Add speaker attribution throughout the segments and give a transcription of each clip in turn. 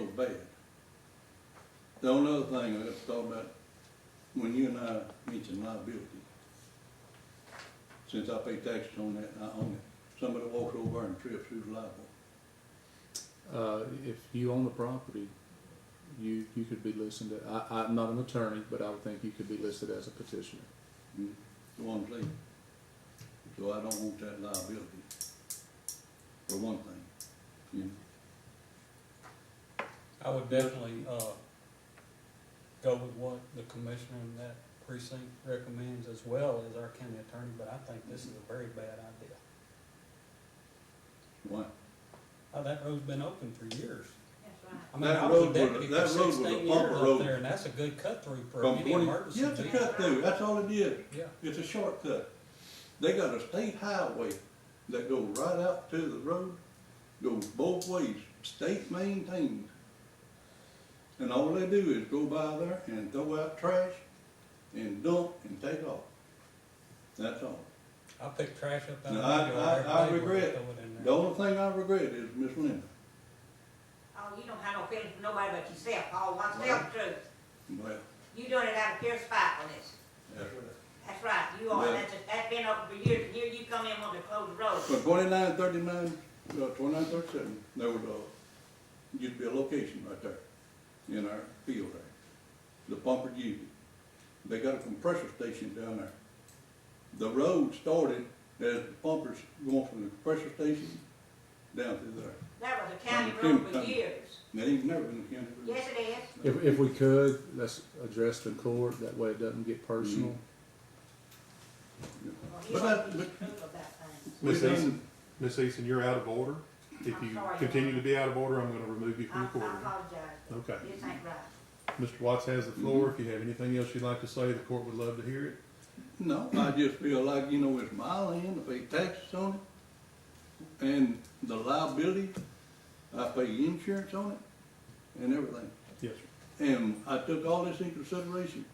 Speaker 1: bed. The only other thing I was thought about, when you and I mentioned liability, since I pay taxes on that, and I own it, somebody walks over and trips, who's liable?
Speaker 2: Uh, if you own the property, you, you could be listed, I, I'm not an attorney, but I would think you could be listed as a petitioner.
Speaker 1: Hmm? The one place. So I don't want that liability, for one thing, you know?
Speaker 3: I would definitely, uh, go with what the commissioner in that precinct recommends as well as our county attorney, but I think this is a very bad idea.
Speaker 1: Why?
Speaker 3: Oh, that road's been open for years.
Speaker 4: That's right.
Speaker 3: I mean,
Speaker 1: That
Speaker 3: I was
Speaker 1: road
Speaker 3: a
Speaker 1: was a-
Speaker 3: deputy for
Speaker 1: that road was a
Speaker 3: sixteen
Speaker 1: bumper
Speaker 3: years
Speaker 1: road.
Speaker 3: up there, and that's a good cut through for
Speaker 1: From
Speaker 3: any
Speaker 1: 20
Speaker 3: emergency.
Speaker 1: Yeah, it's a cut through, that's all it is.
Speaker 3: Yeah,
Speaker 1: It's a shortcut. They got a state highway that goes right out to the road, goes both ways, state maintained. And all they do is go by there and throw out trash and dump and take off. That's all.
Speaker 3: I pick trash up out
Speaker 1: No,
Speaker 3: of
Speaker 1: I-
Speaker 3: my yard.
Speaker 1: I- I
Speaker 3: every day when
Speaker 1: regret-
Speaker 3: throw it in
Speaker 1: The
Speaker 3: there.
Speaker 1: only thing I regret is Miss Linda,
Speaker 4: Oh, you don't have no feelings for nobody but yourself, Oh, all oneself true.
Speaker 1: well,
Speaker 4: You doing it out of pure spite on this.
Speaker 1: that's right.
Speaker 4: That's right, you are,
Speaker 1: Yeah.
Speaker 4: that's, that's been open for years, and here you come in wanting to close the road.
Speaker 1: But twenty-nine, thirty-nine, uh, twenty-nine, thirty-seven, there was a, used to be a location right there in our field there. The pumper used it. They got a compressor station down there. The road started as the pumpers going from the compressor station down through there.
Speaker 4: That was a county
Speaker 1: From
Speaker 4: road for
Speaker 1: Kentucky.
Speaker 4: years.
Speaker 1: And it ain't never been a county road.
Speaker 4: Yes, it is.
Speaker 2: If, if we could, that's addressed in court, that way it doesn't get personal.
Speaker 5: Mm-hmm.
Speaker 4: Well,
Speaker 1: But
Speaker 4: he's
Speaker 1: that-
Speaker 4: always
Speaker 1: but-
Speaker 4: true about things.
Speaker 1: We
Speaker 5: Miss
Speaker 1: done-
Speaker 5: Eason, Miss Eason, you're out of order. If
Speaker 4: I'm
Speaker 5: you
Speaker 4: sorry.
Speaker 5: continue to be out of order, I'm gonna remove you
Speaker 4: I, I
Speaker 5: from the courtroom.
Speaker 4: apologize,
Speaker 5: Okay.
Speaker 4: this ain't right.
Speaker 5: Mr. Watts has the floor. If you have anything else you'd like to say, the court would love to hear it.
Speaker 1: No, I just feel like, you know, it's my land, I pay taxes on it, and the liability, I pay insurance on it, and everything.
Speaker 5: Yes,
Speaker 1: And I took all this into consideration.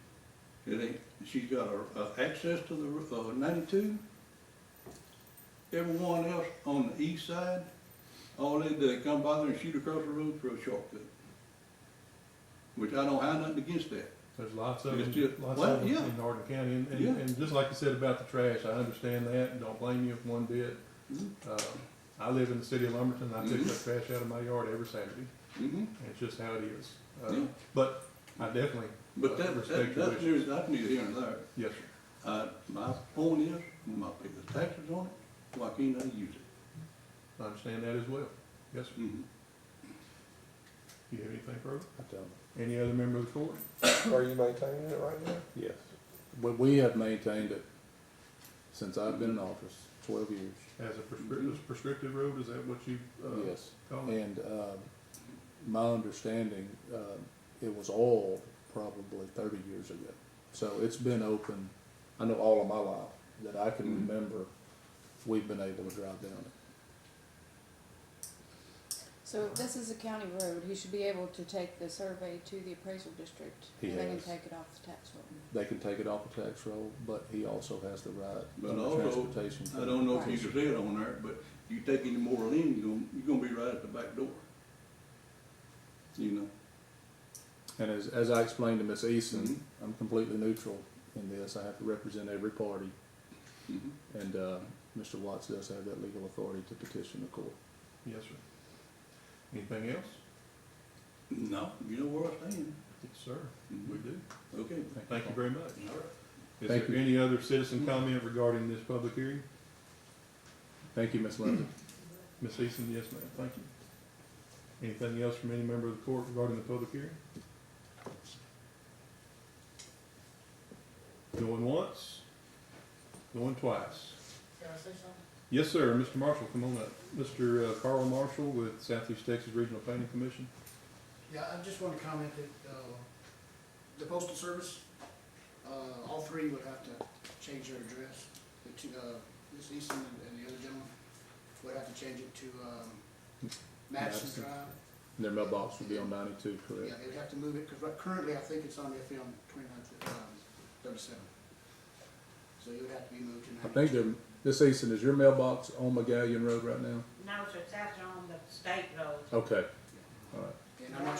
Speaker 1: It ain't, she's got a, a access to the, uh, ninety-two. Everyone else on the east side, all they do, they come by there and shoot across the road for a shortcut. Which I don't have nothing against that.
Speaker 5: There's lots of
Speaker 1: Yes,
Speaker 5: them,
Speaker 1: yes.
Speaker 5: lots
Speaker 1: Well,
Speaker 5: of them
Speaker 1: yeah.
Speaker 5: in Hardin County. And,
Speaker 1: Yeah.
Speaker 5: and, and just like you said about the trash, I understand that and don't blame you one bit.
Speaker 1: Mhm.
Speaker 5: Uh, I live in the city of Lumberton. I pick
Speaker 1: Mhm.
Speaker 5: up trash out of my yard every Saturday.
Speaker 1: hmm
Speaker 5: It's just how it is. Uh,
Speaker 1: Yeah.
Speaker 5: But I definitely,
Speaker 1: But
Speaker 5: I
Speaker 1: that,
Speaker 5: respect
Speaker 1: that,
Speaker 5: your
Speaker 1: that's,
Speaker 5: wishes.
Speaker 1: near- that's neither here and there.
Speaker 5: Yes, sir.
Speaker 1: Uh, my point is, when I pay the taxes on it, why can't I use it?
Speaker 5: I understand that as well. Yes, sir.
Speaker 1: Mhm.
Speaker 5: Do you have anything further?
Speaker 2: I don't,
Speaker 5: Any other member of the court?
Speaker 6: Are you maintaining it right now?
Speaker 2: yes. But we have maintained it since I've been in office, twelve years,
Speaker 5: As a prescriptive, prescriptive road, is that what you, uh,
Speaker 2: yes.
Speaker 5: call it?
Speaker 2: And, um, my understanding, um, it was oiled probably thirty years ago. So it's been open, I know all of my life, that I can
Speaker 1: Mhm.
Speaker 2: remember, we've been able to drive down it.
Speaker 7: So if this is a county road, he should be able to take the survey to the appraisal district.
Speaker 2: He
Speaker 7: And they can
Speaker 2: has.
Speaker 7: take it off the tax roll.
Speaker 2: They can take it off the tax roll, but he also has the right
Speaker 1: But
Speaker 2: under
Speaker 1: also,
Speaker 2: transportation.
Speaker 1: I don't know if you can say it on there, but you take any more land, you're gonna, you're gonna be right at the back door. You know,
Speaker 2: And as, as I explained to Miss
Speaker 1: Mhm.
Speaker 2: Eason, I'm completely neutral in this. I have to represent every party.
Speaker 1: Mhm.
Speaker 2: And, uh, Mr. Watts does have that legal authority to petition the court.
Speaker 5: Yes, sir. Anything else?
Speaker 1: no, you know where I stand,
Speaker 5: Yes, sir.
Speaker 1: Mhm.
Speaker 5: We do.
Speaker 1: okay,
Speaker 5: Thank you very much.
Speaker 1: all right.
Speaker 5: Is
Speaker 2: Thank
Speaker 5: there
Speaker 2: you.
Speaker 5: any other citizen comment regarding this public hearing?
Speaker 2: Thank you, Miss Linda.
Speaker 5: Ms. Eason, yes, ma'am. Thank you. Anything else from any member of the court regarding the public hearing? Going once, going twice.
Speaker 4: Can I say something?
Speaker 5: Yes, sir. Mr. Marshall, come on up. Mr. uh, Carl Marshall with Southeast Texas Regional Planning Commission.
Speaker 8: Yeah, I just want to comment that, uh, the postal service, uh, all three would have to change their address. The two, uh, Ms. Easton and- and the other gentleman would have to change it to, um,
Speaker 2: Madison.
Speaker 8: Madison Drive.
Speaker 2: Their mailbox would be on ninety-two, correct?
Speaker 8: Yeah, they'd have to move it, because currently I think it's on FM twenty-ninth, um, thirty-seven. So it would have to be moved to
Speaker 2: I
Speaker 8: ninety-two.
Speaker 2: think their, Miss Eason, is your mailbox on McGallion Road right now?
Speaker 4: No, sir, it's out there on the state road.
Speaker 2: Okay, all right.
Speaker 8: And I'm not